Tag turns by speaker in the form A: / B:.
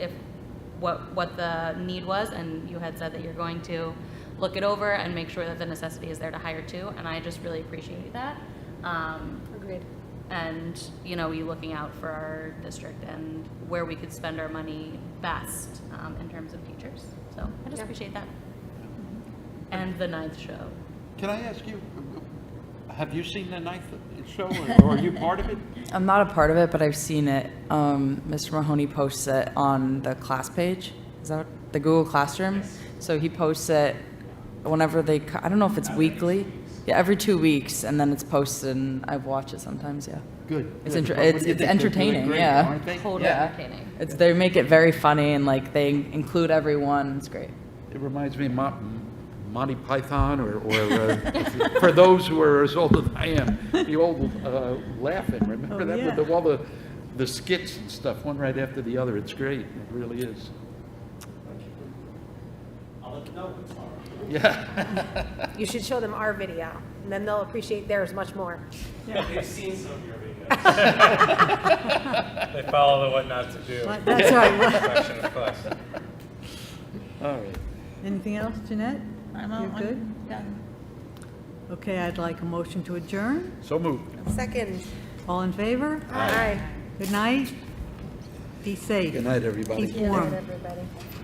A: what, what the need was, and you had said that you're going to look it over and make sure that the necessity is there to hire two, and I just really appreciate that. Um,
B: Agreed.
A: and, you know, you looking out for our district and where we could spend our money best, um, in terms of teachers. So I just
B: Yeah.
A: appreciate that. And the ninth show.
C: Can I ask you, have you seen the ninth show, or- or are you part of it?
D: I'm not a part of it, but I've seen it. Um, Mr. Mahoney posts it on the class page. Is that the Google Classroom? So he posts it whenever they. co- I don't know if it's weekly. Yeah, every two weeks, and then it's posted, and I watch it sometimes. Yeah,
C: Good.
D: It's
C: good.
D: inter-
C: What do you
D: it's-
C: think?
D: it's
C: They're doing
D: entertaining,
C: great,
D: yeah.
C: aren't they?
A: Totally
D: Yeah.
A: entertaining.
D: it's they make it very funny, and like they include everyone. It's great.
C: It reminds me of Mo- Monty Python, or, or, uh, for those who are as old as I am, the old uh, laughing,
D: Oh,
C: remember that? With the- all the, the skits and stuff, one right after the other, it's great, it really is. I'll let you know tomorrow. Yeah.
B: You should show them our video, and then they'll appreciate theirs much more.
E: They've seen some of your videos. They follow the what not to do.
F: That's right.
E: section of class.
C: All right.
F: Anything else, Jeanette?
G: I'm all-
F: You're
G: I'm
F: good?
G: done.
F: Okay, I'd like a motion to adjourn.
C: So moved.
B: Second.
F: All in favor?
B: All right.
F: Good night. Be safe.
C: Good night, everybody.
F: Keep warm.
B: everybody.